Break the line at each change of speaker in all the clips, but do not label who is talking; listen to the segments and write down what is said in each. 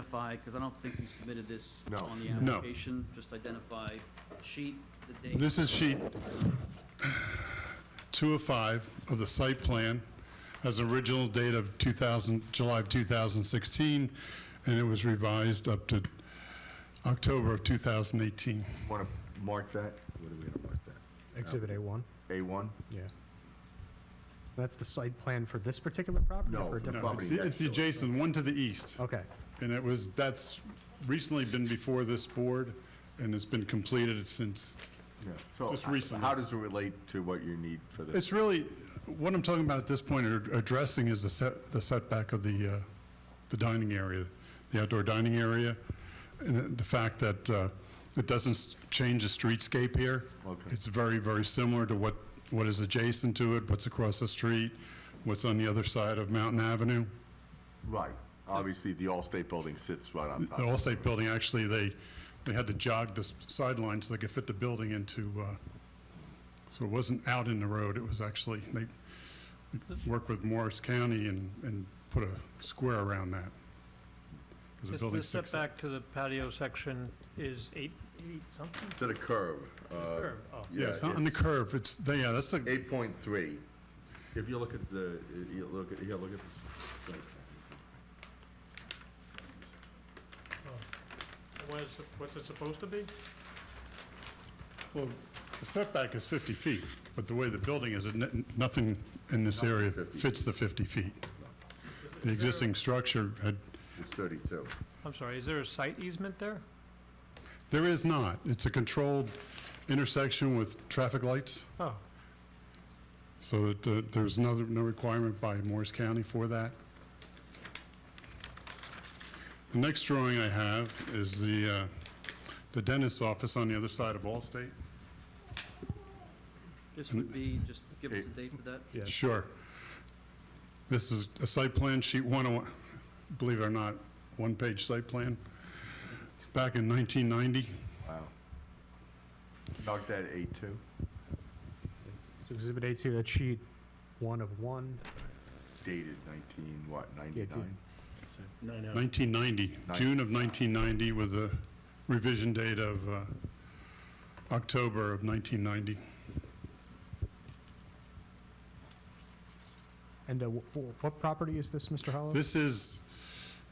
identify, because I don't think you submitted this
No.
on the
No.
application. Just identify sheet, the date.
This is sheet
two of five of the site plan as original date of 2000, July of 2016, and it was revised up to October of 2018.
Want to mark that? What are we going to mark that?
Exhibit A1,
A1?
yeah. That's the site plan for this particular property? or
No,
for a
for
different-
No, it's
Property
the-
next
it's the
door.
adjacent, one to the east.
Okay,
And it was, that's recently been before this board, and it's been completed since.
Yeah. So
Just
h-
recently.
how does it relate to what you need for this?
It's really, what I'm talking about at this point, or addressing is the set, the setback of the, uh, the dining area, the outdoor dining area, and the fact that uh, it doesn't s- change the streetscape here.
Okay.
It's very, very similar to what, what is adjacent to it, what's across the street, what's on the other side of Mountain Avenue.
Right. Obviously, the Allstate building sits right on
The
top.
Allstate building, actually, they, they had to jog the s- sideline so they could fit the building into, uh, so it wasn't out in the road, it was actually, they they worked with Morris County and, and put a square around that. 'Cause the
Just
building's
The
six-
setback to the patio section is eight, eight something?
To the curb. uh,
Curve, oh.
Yeah, it's not on the
it's
curve, it's, they- yeah, that's the,
8.3. If you look at the, you look at, here, look at this.
What is- What's it supposed to be?
well, the setback is 50 feet, but the way the building is, it n- nothing in this area
50.
fits the 50 feet. The existing structure had,
It's 32.
I'm sorry, is there a site easement there?
there is not, it's a controlled intersection with traffic lights.
Oh,
So that uh, there's no, no requirement by Morris County for that. The next drawing I have is the, uh, the dentist's office on the other side of Allstate.
This would be, just give us the date for that.
yeah.
Sure. This is a site plan, sheet 101, believe it or not, one-page site plan, back in 1990.
Wow. Mark that 8.2.
So Exhibit A2, that's sheet one of one.
Dated 19, what, 99?
1990,
Nine-
June of 1990 with a revision date of uh, October of 1990.
And uh, wh- wh- what property is this, Mr. Hollow?
This is,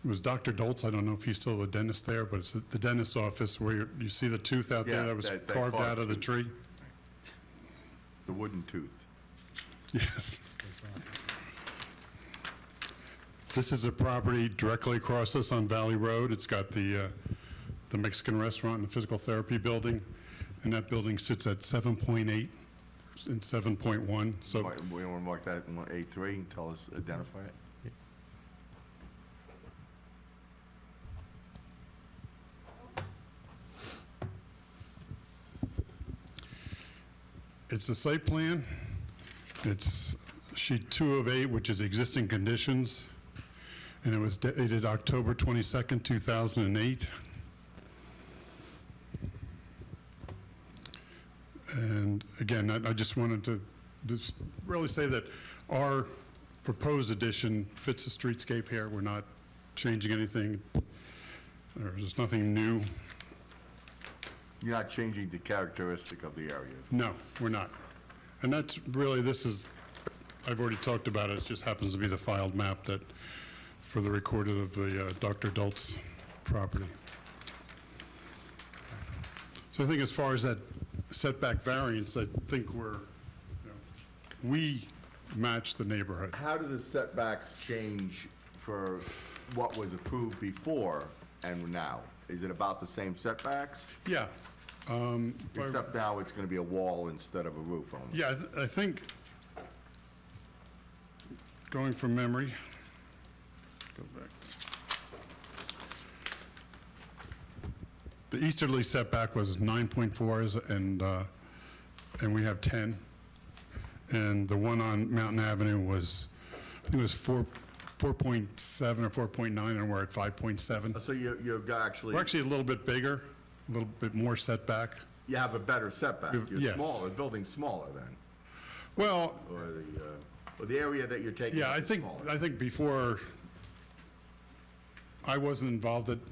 it was Dr. Dolz, I don't know if he's still the dentist there, but it's the dentist's office where you- you see the tooth out there
Yeah,
that was
that- that
carved
carved
out of the
tooth.
tree?
The wooden tooth.
Yes. This is a property directly across us on Valley Road. It's got the, uh, the Mexican restaurant and the physical therapy building, and that building sits at 7.8 and 7.1, so.
Mark- We want to mark that in 8.3 and tell us, identify it.
It's a site plan. It's sheet two of eight, which is existing conditions, and it was dated October 22nd, 2008. And again, I I just wanted to just really say that our proposed addition fits the streetscape here. We're not changing anything. There's nothing new.
You're not changing the characteristic of the area.
No, we're not. And that's really, this is, I've already talked about it, it just happens to be the filed map that, for the recorded of the uh, Dr. Dolt's property. So I think as far as that setback variance, I think we're, you know, we match the neighborhood.
How do the setbacks change for what was approved before and now? Is it about the same setbacks?
Yeah. um, by-
Except now it's gonna be a wall instead of a roof only.
Yeah, I th- I think, going from memory, go back. The easterly setback was 9.4, and, uh, and we have 10. And the one on Mountain Avenue was, I think it was 4, 4.7 or 4.9, and we're at 5.7.
Uh, So you, you've got actually,
We're actually a little bit bigger, a little bit more setback.
you have a better setback.
You've-
You're
yes.
smaller, the building's smaller then,
Well,
or the, uh, or the area that you're taking
Yeah,
up
I
is
think,
smaller.
I think before, I wasn't involved at,